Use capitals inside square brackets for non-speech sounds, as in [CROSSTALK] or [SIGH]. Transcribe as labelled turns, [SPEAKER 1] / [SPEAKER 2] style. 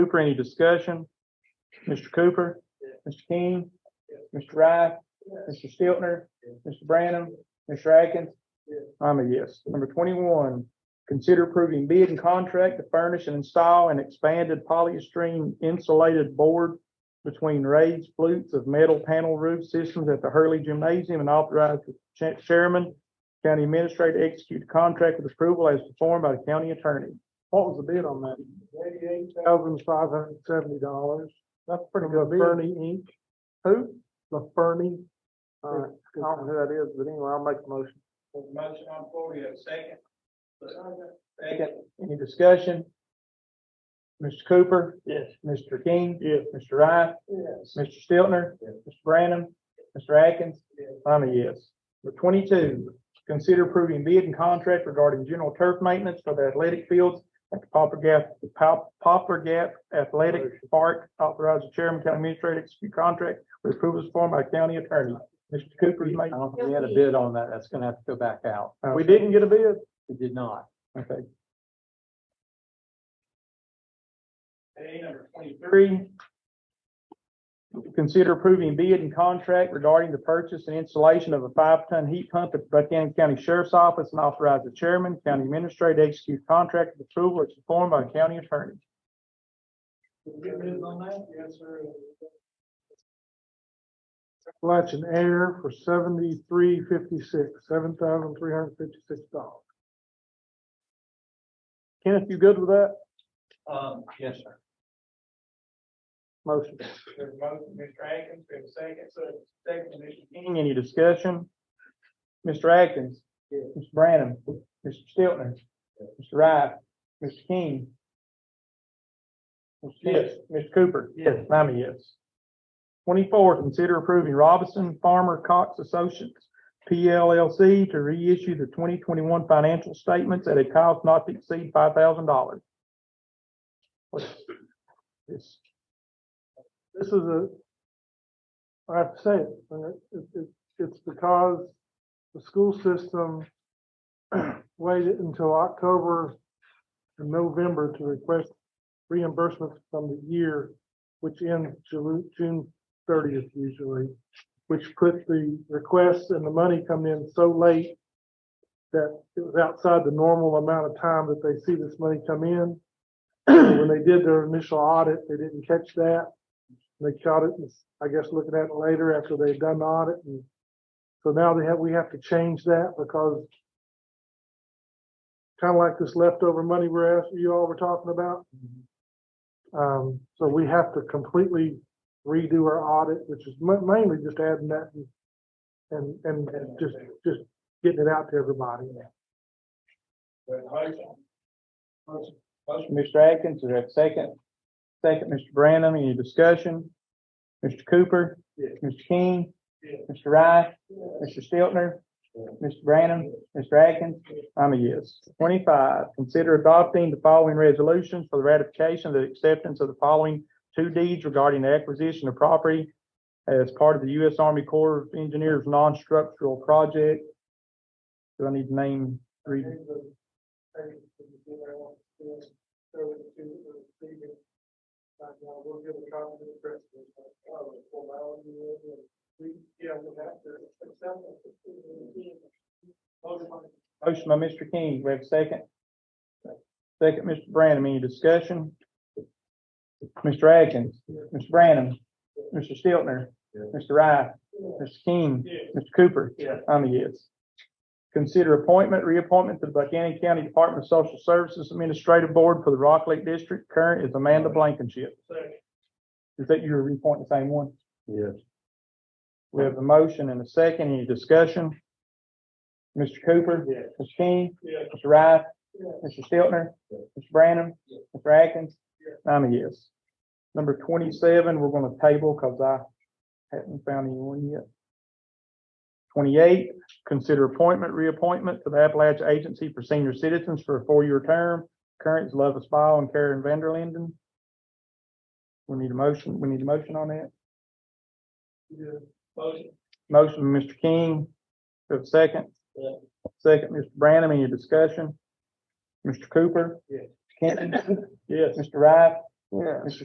[SPEAKER 1] Cooper, any discussion? Mr. Cooper? Mr. King? Mr. Wright? Mr. Stiltner? Mr. Brannum? Mr. Atkins? I'm a yes. Number twenty-one, consider approving bid and contract to furnish and install an expanded polystyrene insulated board between raised flutes of metal panel roof systems at the Hurley Gymnasium and authorize the cha- chairman, county administrator to execute the contract with approval as performed by the county attorney. What was the bid on that? Eighty-eight thousand five hundred and seventy dollars. That's pretty good bid. Fernie Inc. Who? The Fernie. Uh, I don't know who that is, but anyway, I'll make the motion. Motion on floor, you have a second? Second, any discussion? Mr. Cooper? Yes. Mr. King? Yes. Mr. Wright? Yes. Mr. Stiltner? Yes. Mr. Brannum? Mr. Atkins? Yes. I'm a yes. Number twenty-two, consider approving bid and contract regarding general turf maintenance for the athletic fields at the Poplar Gap, Pop- Poplar Gap Athletic Park. Authorize the chairman, county administrator, to execute contract with approval form by county attorney. Mr. Cooper's
[SPEAKER 2] I
[SPEAKER 1] made.
[SPEAKER 2] don't think we had a bid on that. That's gonna have to go back out.
[SPEAKER 1] We didn't get a bid?
[SPEAKER 2] We did not.
[SPEAKER 1] Okay. A number twenty-three. Consider approving bid and contract regarding the purchase and installation of a five-ton heat pump at Buchanan County Sheriff's Office and authorize the chairman, county administrator to execute contract with approval as formed by the county attorney.
[SPEAKER 3] Appalachian Air for seventy-three fifty-six, seven thousand three hundred fifty-six dollars.
[SPEAKER 1] Kenneth, you good with that?
[SPEAKER 2] Um, yes, sir.
[SPEAKER 1] Motion. There's a motion, Mr. Atkins, we have a second, so second, Mr. King, any discussion? Mr. Atkins.
[SPEAKER 2] Yes.
[SPEAKER 1] Mr. Brannum. Mr. Stiltner. Mr. Wright. Mr. King. Mr. King.
[SPEAKER 2] Yes.
[SPEAKER 1] Mr. Cooper.
[SPEAKER 2] Yes.
[SPEAKER 1] I'm a yes. Twenty-four, consider approving Robinson Farmer Cox Associates, PLLC, to reissue the twenty twenty-one financial statements at a cost not to exceed five thousand dollars. This
[SPEAKER 3] This is a, I have to say it, uh, it, it, it's because the school system [CLEARS THROAT] waited until October and November to request reimbursements from the year, which ends Ju- June thirtieth usually, which put the requests and the money come in so late that it was outside the normal amount of time that they see this money come in. [CLEARS THROAT] When they did their initial audit, they didn't catch that. They caught it, I guess, looking at it later after they've done the audit and so now they have, we have to change that because kind of like this leftover money we're asking, you all were talking about. Um, so we have to completely redo our audit, which is ma- mainly just adding that and- and, and just, just getting it out to everybody.
[SPEAKER 1] Motion, Mr. Atkins, is there a second? Second, Mr. Brannum, any discussion? Mr. Cooper?
[SPEAKER 3] Yes.
[SPEAKER 1] Mr. King?
[SPEAKER 3] Yes.
[SPEAKER 1] Mr. Rice? Mr. Stiltner?
[SPEAKER 3] Yes.
[SPEAKER 1] Mr. Brannum? Mr. Atkins? I'm a yes. Twenty-five, consider adopting the following resolutions for the ratification of the acceptance of the following two deeds regarding the acquisition of property as part of the U.S. Army Corps of Engineers non-structural project. Do I need to name three? Motion by Mr. King, we have a second. Second, Mr. Brannum, any discussion? Mr. Atkins, Mr. Brannum, Mr. Stiltner, Mr. Wright, Mr. King, Mr. Cooper. I'm a yes. Consider appointment, reappointment to the Buchanan County Department of Social Services Administrative Board for the Rock Lake District. Current is Amanda Blankenship. Is that you reappointing the same one?
[SPEAKER 2] Yes.
[SPEAKER 1] We have a motion and a second. Any discussion? Mr. Cooper?
[SPEAKER 3] Yes.
[SPEAKER 1] Mr. King?
[SPEAKER 3] Yes.
[SPEAKER 1] Mr. Wright?
[SPEAKER 3] Yes.
[SPEAKER 1] Mr. Stiltner?
[SPEAKER 2] Yes.
[SPEAKER 1] Mr. Brannum?
[SPEAKER 2] Yes.
[SPEAKER 1] Mr. Atkins?
[SPEAKER 3] Yes.
[SPEAKER 1] I'm a yes. Number twenty-seven, we're gonna table because I haven't found anyone yet. Twenty-eight, consider appointment, reappointment to the Appalachia Agency for Senior Citizens for a four-year term. Current is Lovis Ball and Karen Vanderlinden. We need a motion, we need a motion on that. Motion, Mr. King, do I have a second?
[SPEAKER 2] Yeah.
[SPEAKER 1] Second, Mr. Brannum, any discussion? Mr. Cooper?
[SPEAKER 3] Yes.
[SPEAKER 1] Kenton?
[SPEAKER 3] Yes.
[SPEAKER 1] Mr. Wright? Yeah.